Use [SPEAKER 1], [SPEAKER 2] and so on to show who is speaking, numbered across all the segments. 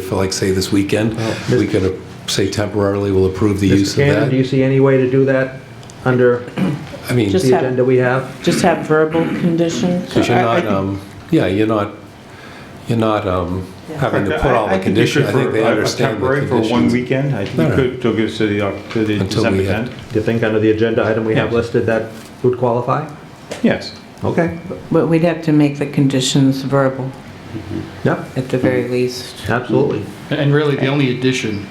[SPEAKER 1] for like, say, this weekend, we could uh, say temporarily we'll approve the use
[SPEAKER 2] Mr.
[SPEAKER 1] of
[SPEAKER 2] Cannon, do you
[SPEAKER 1] that.
[SPEAKER 2] see any way to do that under
[SPEAKER 1] I mean,
[SPEAKER 3] Just-
[SPEAKER 1] because
[SPEAKER 2] the
[SPEAKER 3] have-
[SPEAKER 2] agenda we have?
[SPEAKER 3] Just have verbal conditions?
[SPEAKER 1] you're
[SPEAKER 3] I- I
[SPEAKER 1] not,
[SPEAKER 3] think-
[SPEAKER 1] um, yeah, you're not, you're not um, having to put
[SPEAKER 4] I-
[SPEAKER 1] all
[SPEAKER 4] I
[SPEAKER 1] the
[SPEAKER 4] think you
[SPEAKER 1] conditions.
[SPEAKER 4] should
[SPEAKER 1] I think they
[SPEAKER 4] for a- a
[SPEAKER 1] understand the
[SPEAKER 4] Temporary for one
[SPEAKER 1] conditions.
[SPEAKER 4] weekend, I think
[SPEAKER 1] No,
[SPEAKER 4] you
[SPEAKER 1] no.
[SPEAKER 4] could, till it's to the, Oc- to the
[SPEAKER 1] Until
[SPEAKER 4] December
[SPEAKER 1] we, uh,
[SPEAKER 4] 10th.
[SPEAKER 2] Do you think under the agenda item we have
[SPEAKER 4] Yes.
[SPEAKER 2] listed that would qualify?
[SPEAKER 4] Yes.
[SPEAKER 2] Okay,
[SPEAKER 5] But we'd have to make the conditions verbal
[SPEAKER 2] yep,
[SPEAKER 5] at the very least.
[SPEAKER 2] absolutely.
[SPEAKER 6] And really, the only addition,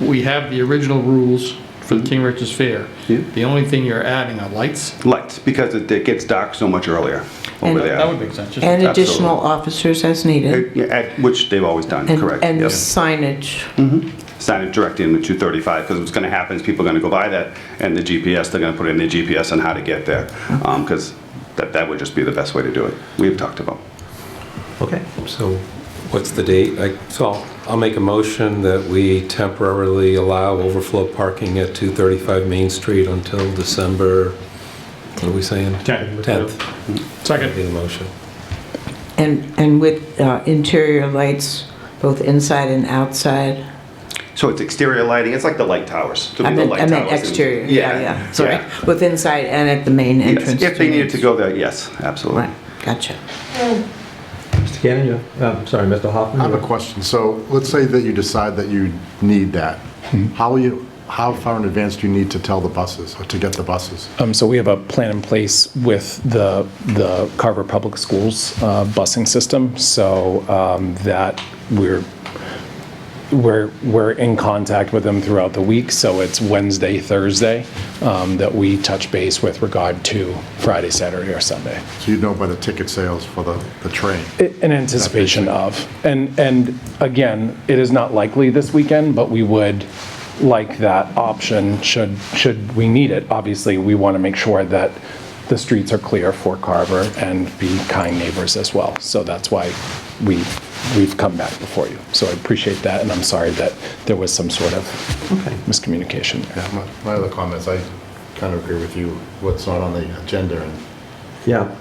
[SPEAKER 6] we have the original rules for the King Richard's Fair.
[SPEAKER 7] Yeah.
[SPEAKER 6] The only thing you're adding are lights.
[SPEAKER 7] Lights, because it it gets dark so much earlier
[SPEAKER 5] And-
[SPEAKER 7] over
[SPEAKER 6] That would
[SPEAKER 7] there.
[SPEAKER 6] make sense. just-
[SPEAKER 5] And additional
[SPEAKER 7] Absolutely.
[SPEAKER 5] officers as needed.
[SPEAKER 7] It- yeah, at- Which they've always done,
[SPEAKER 5] And
[SPEAKER 7] correct. Hmm.
[SPEAKER 5] and
[SPEAKER 7] yes.
[SPEAKER 5] signage.
[SPEAKER 7] Sign it directly into 235, because what's going to happen is people are going to go by that, and the GPS, they're going to put in their GPS on how to get there, because that that would just be the best way to do it. We've talked about.
[SPEAKER 2] Okay,
[SPEAKER 1] So what's the date? I- So I'll- I'll make a motion that we temporarily allow overflow parking at 235 Main Street until December, what are we saying?
[SPEAKER 4] 10th.
[SPEAKER 1] 10th.
[SPEAKER 6] Second.
[SPEAKER 1] That'd be the motion.
[SPEAKER 5] And, and with uh, interior lights, both inside and outside.
[SPEAKER 7] So it's exterior lighting, it's like the light towers. It'll be
[SPEAKER 5] I
[SPEAKER 7] the
[SPEAKER 5] meant,
[SPEAKER 7] light
[SPEAKER 5] I meant
[SPEAKER 7] towers in-
[SPEAKER 5] exterior, yeah, yeah, sorry.
[SPEAKER 7] yeah.
[SPEAKER 5] Both inside and at the main
[SPEAKER 7] Yes,
[SPEAKER 5] entrance.
[SPEAKER 7] If they needed to
[SPEAKER 5] main-
[SPEAKER 7] go there, yes, absolutely.
[SPEAKER 5] Right, gotcha.
[SPEAKER 2] Mr. Cannon, you, um, sorry, Mr. Hoffman?
[SPEAKER 8] I have
[SPEAKER 2] you-
[SPEAKER 8] a question. So let's say that you decide that you need that. How will you, how far in advance do you need to tell the buses, or to get the buses?
[SPEAKER 9] Um, So we have a plan in place with the, the Carver Public Schools uh, busing system, so um, that we're, we're, we're in contact with them throughout the week, so it's Wednesday, Thursday, um, that we touch base with regard to Friday, Saturday, or Sunday
[SPEAKER 8] So you'd know by the ticket sales for the, the train.
[SPEAKER 9] in anticipation of. And, and again, it is not likely this weekend, but we would like that option should, should we need it. Obviously, we want to make sure that the streets are clear for Carver and be kind neighbors as well. So that's why we, we've come back before you. So I appreciate that, and I'm sorry that there was some sort of miscommunication there.
[SPEAKER 8] Yeah, my- my other comments, I kind of agree with you, what's not on the agenda and
[SPEAKER 2] Yeah,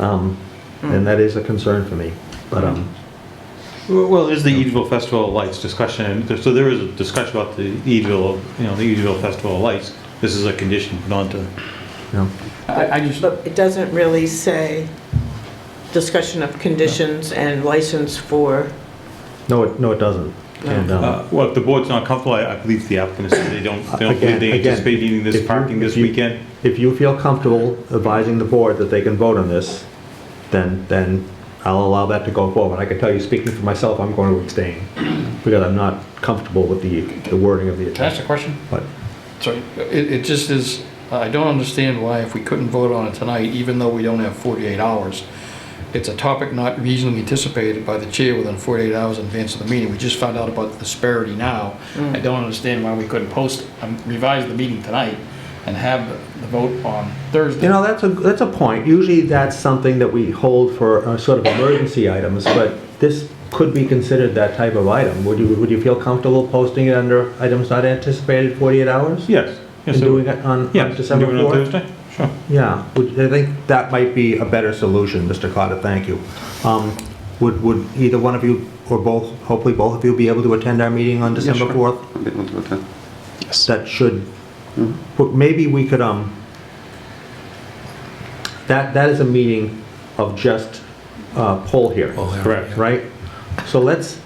[SPEAKER 2] um, and that is a concern for me, but, um,
[SPEAKER 4] Well, well, there's the Ediville Festival of Lights discussion, and there- so there is a discussion about the Ediville, you know, the Ediville Festival of Lights. This is a condition put onto,
[SPEAKER 2] you know,
[SPEAKER 6] I I just,
[SPEAKER 5] But it doesn't really say discussion of conditions and license for,
[SPEAKER 2] no, it, no, it doesn't. And, um,
[SPEAKER 4] uh, well, if the board's not comfortable, I I believe the applicant is, they don't, they don't
[SPEAKER 2] Again-
[SPEAKER 4] believe they
[SPEAKER 2] again,
[SPEAKER 4] anticipate needing
[SPEAKER 2] if
[SPEAKER 4] this
[SPEAKER 2] you-
[SPEAKER 4] parking this
[SPEAKER 2] if you-
[SPEAKER 4] weekend.
[SPEAKER 2] If you feel comfortable advising the board that they can vote on this, then, then I'll allow that to go forward. I can tell you, speaking for myself, I'm going to abstain because I'm not comfortable with the, the wording of the
[SPEAKER 6] can I ask
[SPEAKER 2] agenda.
[SPEAKER 6] a question?
[SPEAKER 2] But
[SPEAKER 6] Sorry, it, it just is, I don't understand why if we couldn't vote on it tonight, even though we don't have 48 hours, it's a topic not reasonably anticipated by the chair within 48 hours in advance of the meeting. We just found out about the disparity now. I don't understand why we couldn't post, um, revise the meeting tonight and have the- the vote on Thursday.
[SPEAKER 2] You know, that's a, that's a point. Usually that's something that we hold for uh, sort of emergency items, but this could be considered that type of item. Would you, would you feel comfortable posting it under items not anticipated 48 hours?
[SPEAKER 4] Yes.
[SPEAKER 2] And
[SPEAKER 4] yes, I
[SPEAKER 2] doing
[SPEAKER 4] would.
[SPEAKER 2] it on on
[SPEAKER 4] Yes, and
[SPEAKER 2] December 4th?
[SPEAKER 4] doing it on Thursday? Sure.
[SPEAKER 2] Yeah, would- I think that might be a better solution, Mr. Carter, thank you. Um, Would, would either one of you, or both, hopefully both of you, be able to attend our meeting on December 4th? That should, but maybe we could, um, that, that is a meeting of just uh, poll hearings.
[SPEAKER 1] Poll hearing,
[SPEAKER 2] Correct, right? So let's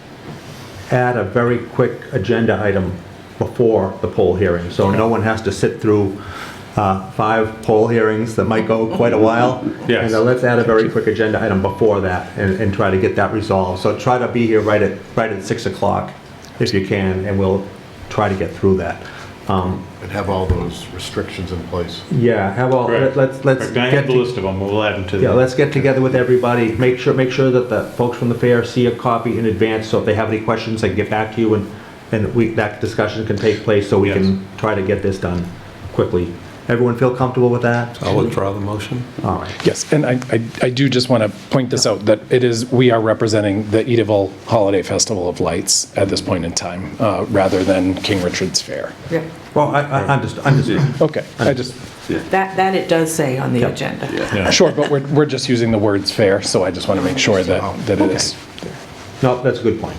[SPEAKER 2] add a very quick agenda item before the poll hearing, so no one has to sit through uh, five poll hearings that might go quite a while.
[SPEAKER 4] Yes.
[SPEAKER 2] And then let's add a very quick agenda item before that and, and try to get that resolved. So try to be here right at, right at 6 o'clock if you can, and we'll try to get through that. Um,
[SPEAKER 8] and have all those restrictions in place.
[SPEAKER 2] Yeah, have all,
[SPEAKER 4] Correct.
[SPEAKER 2] let's, let's
[SPEAKER 4] Correct. I have
[SPEAKER 2] get
[SPEAKER 4] the
[SPEAKER 2] to
[SPEAKER 4] list of them, we'll add them to the.
[SPEAKER 2] yeah, let's get together with everybody, make sure, make sure that the folks from the fair see a copy in advance, so if they have any questions, they can get back to you, and, and we, that discussion can take place, so we can try to get this done quickly. Everyone feel comfortable with that?
[SPEAKER 4] Oh.
[SPEAKER 1] I'll withdraw the motion.
[SPEAKER 2] All right.
[SPEAKER 9] Yes, and I, I- I do just want to point this out, that it is, we are representing the Ediville Holiday Festival of Lights at this point in time, uh, rather than King Richard's Fair.
[SPEAKER 5] yeah,
[SPEAKER 2] Well, I, I understand, understand.
[SPEAKER 9] Okay, I just,
[SPEAKER 5] that, that it does say on the
[SPEAKER 2] Yep.
[SPEAKER 5] agenda.
[SPEAKER 9] sure, but we're, we're just using the words fair, so I just want to make sure that, that it is.
[SPEAKER 2] No, that's a good point.